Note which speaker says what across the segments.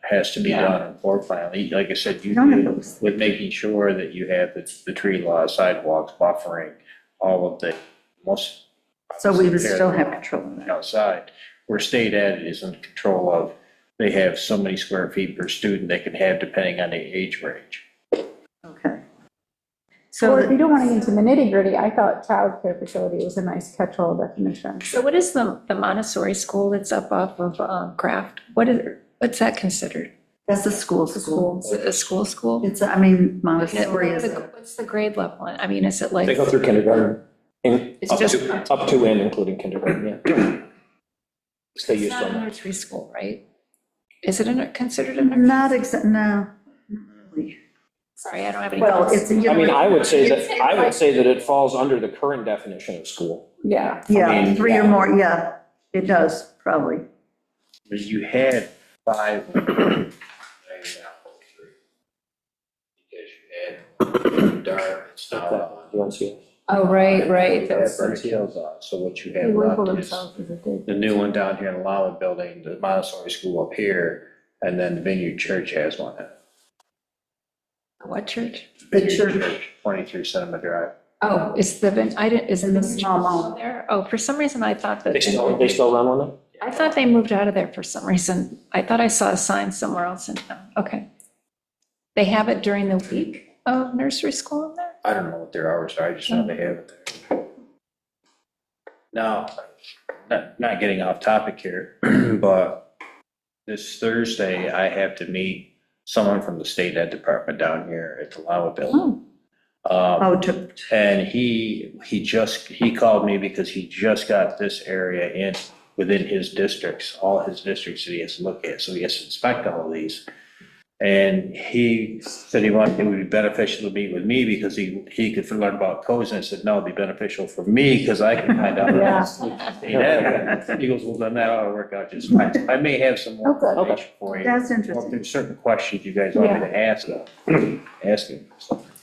Speaker 1: has to be
Speaker 2: Yeah.
Speaker 1: done on floor plan. Like I said, you,
Speaker 2: None of
Speaker 1: you-
Speaker 2: those.
Speaker 1: with making sure that you have the, the tree law, sidewalks, buffering, all of the most.
Speaker 2: So we would
Speaker 1: Compared
Speaker 2: still
Speaker 1: to
Speaker 2: have control of that.
Speaker 1: Outside, where state ed is in control of, they have so many square feet per student they can have depending on the age range.
Speaker 2: Okay.
Speaker 3: Or
Speaker 2: So,
Speaker 3: if you
Speaker 2: the-
Speaker 3: don't want to get into the nitty gritty, I thought childcare facility was a nice catch-all definition.
Speaker 4: So what is the, the Montessori school that's up off of um, Craft? What is, what's that considered?
Speaker 2: that's a school, school.
Speaker 4: Is it a school school?
Speaker 2: It's, I mean,
Speaker 4: And it-
Speaker 2: Montessori is, a-
Speaker 4: What's the grade level? I mean, is it like?
Speaker 5: They go through kindergarten, in,
Speaker 4: It's
Speaker 5: up
Speaker 4: just-
Speaker 5: to, up to and including kindergarten, yeah. Stay
Speaker 4: It's
Speaker 5: used
Speaker 4: not a
Speaker 5: on
Speaker 4: nursery school, right? Is it a- considered a nursery?
Speaker 2: not exa, no. not really.
Speaker 4: Sorry, I don't have any.
Speaker 2: Well, it's.
Speaker 5: that. I mean, I would say that, I would say that it falls under the current definition of school.
Speaker 3: Yeah.
Speaker 2: Yeah,
Speaker 1: mean,
Speaker 2: three or
Speaker 1: yeah.
Speaker 2: more, yeah, it does, probably.
Speaker 1: Because you had five. Because you had dark and stuff.
Speaker 5: You want to see it?
Speaker 4: Oh, right, right.
Speaker 1: They have
Speaker 4: That's-
Speaker 1: burnt hills on, so what you
Speaker 3: They
Speaker 1: have
Speaker 3: label
Speaker 1: left is
Speaker 3: themselves as a daycare.
Speaker 1: the new one down here in the Lama Building, the Montessori School up here, and then the Vineyard Church has one.
Speaker 4: What church?
Speaker 2: The
Speaker 1: Vineyard
Speaker 2: church.
Speaker 1: Twenty-three Cinema Drive.
Speaker 4: Oh, is the, Vin- I didn't, is it
Speaker 2: In the
Speaker 4: the church
Speaker 2: small mall.
Speaker 4: still there? Oh, for some reason I thought that.
Speaker 5: They still, they still run on
Speaker 4: I thought they moved out of there for some reason. I thought I saw a sign somewhere else in town. Okay. They have it during the week of nursery school in there?
Speaker 1: I don't know what their hours are, I just know they have it there. Now, not, not getting off topic here, but this Thursday, I have to meet someone from the state ed department down here at the Lama Building. Um,
Speaker 2: Oh, to,
Speaker 1: and he, he just, he called me because he just got this area in, within his districts, all his districts that he has to look at, so he has to inspect all of these. And he said he wanted, it would be beneficial to meet with me because he, he could learn about codes, and I said, no, it'd be beneficial for me because I can find out.
Speaker 3: Yeah.
Speaker 1: Yeah. He goes, well, then that ought to work out just fine, So I may have some more
Speaker 3: Okay.
Speaker 1: information for you.
Speaker 2: that's
Speaker 1: Well, if
Speaker 2: interesting.
Speaker 1: there's certain questions you guys want me to ask, uh, ask him.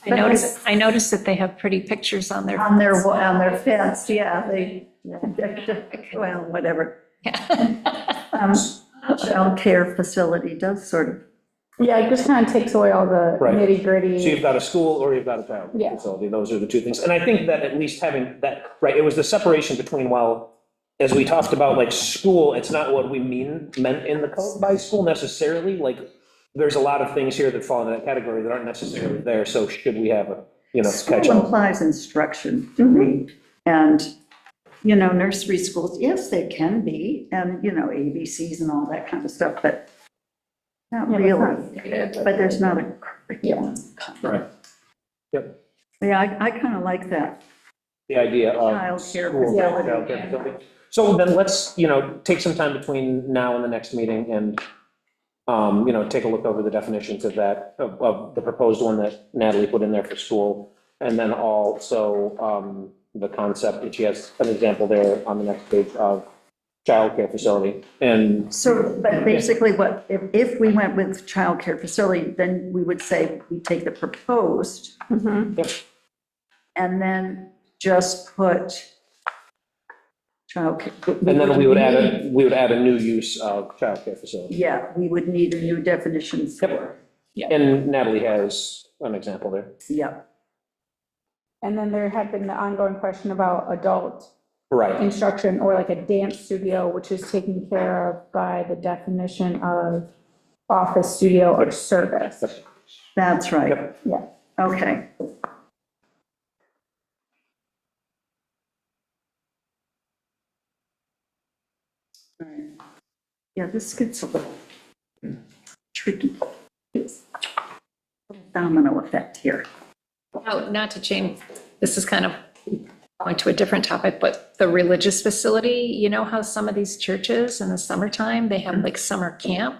Speaker 4: I noticed, I noticed that they have pretty pictures on their.
Speaker 2: On their, wa- on their fence, yeah, they, well, whatever. Um, Childcare facility does sort of,
Speaker 3: Yeah, it just kind of takes away all the
Speaker 5: Right.
Speaker 3: nitty
Speaker 5: it. So you've
Speaker 3: gritty.
Speaker 5: got a school or you've got a town
Speaker 3: Yeah.
Speaker 5: facility, those are the two things. And I think that at least having that, right, it was the separation between, well, as we talked about, like, school, it's not what we mean, meant in the code by school necessarily, like, there's a lot of things here that fall into that category that aren't necessarily there, so should we have a, Mm-hmm. you know, catch
Speaker 2: school
Speaker 5: all?
Speaker 2: implies instruction to me. And, you know, nursery schools, yes, they can be, and, you know, ABCs and all that kind of stuff, but not
Speaker 3: Yeah, but
Speaker 2: really.
Speaker 3: not-
Speaker 2: But there's not a curriculum.
Speaker 5: Right. Yep.
Speaker 2: Yeah, I, I kind of like that.
Speaker 5: The idea of.
Speaker 2: Childcare
Speaker 5: Cool.
Speaker 2: facility.
Speaker 5: Uh, Childcare facility. So then let's, you know, take some time between now and the next meeting and, um, you know, take a look over the definitions of that, of, of the proposed one that Natalie put in there for school. And then also, um, the concept, and she has an example there on the next page of childcare facility. And
Speaker 2: So, but basically what, if, if we went with childcare facility, then we would say we take the proposed
Speaker 3: Mhm.
Speaker 2: and then just put childcare.
Speaker 5: and then we would add, a we would add a new use of childcare facility.
Speaker 2: Yeah, we would need a new definition for,
Speaker 5: And Natalie has an example there.
Speaker 2: yeah.
Speaker 3: And then there had been the ongoing question about adult
Speaker 5: Right.
Speaker 3: instruction or like a dance studio, which is taken care of by the definition of office studio or service.
Speaker 2: That's right,
Speaker 5: Yep.
Speaker 3: Yeah.
Speaker 2: okay. Alright. Yeah, this gets a little tricky. It's a Domino effect here.
Speaker 4: No, Oh, Not to change, this is kind of going to a different topic, but the religious facility, you know how some of these churches in the summertime, they have like summer camp?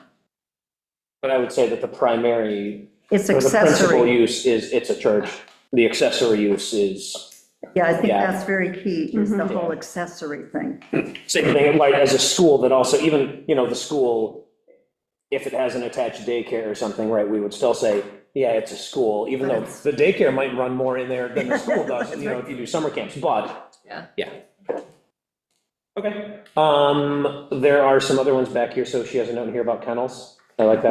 Speaker 5: But I would say that the primary
Speaker 2: It's
Speaker 5: So The principal
Speaker 2: accessory.
Speaker 5: use is, it's a church. The accessory use is,
Speaker 2: Yeah, I think
Speaker 5: Yeah.
Speaker 2: that's very key, is the
Speaker 5: Mhm.
Speaker 2: whole accessory thing.
Speaker 5: same thing, like as a school that also, even, you know, the school, if it has an attached daycare or something, right, we would still say, yeah, it's a school, even though the daycare might run more in there than the school does, you know, if you do summer camps, but.
Speaker 4: Yeah.
Speaker 5: Yeah. Okay. Um, there are some other ones back here, so she has a note here about kennels. I like that.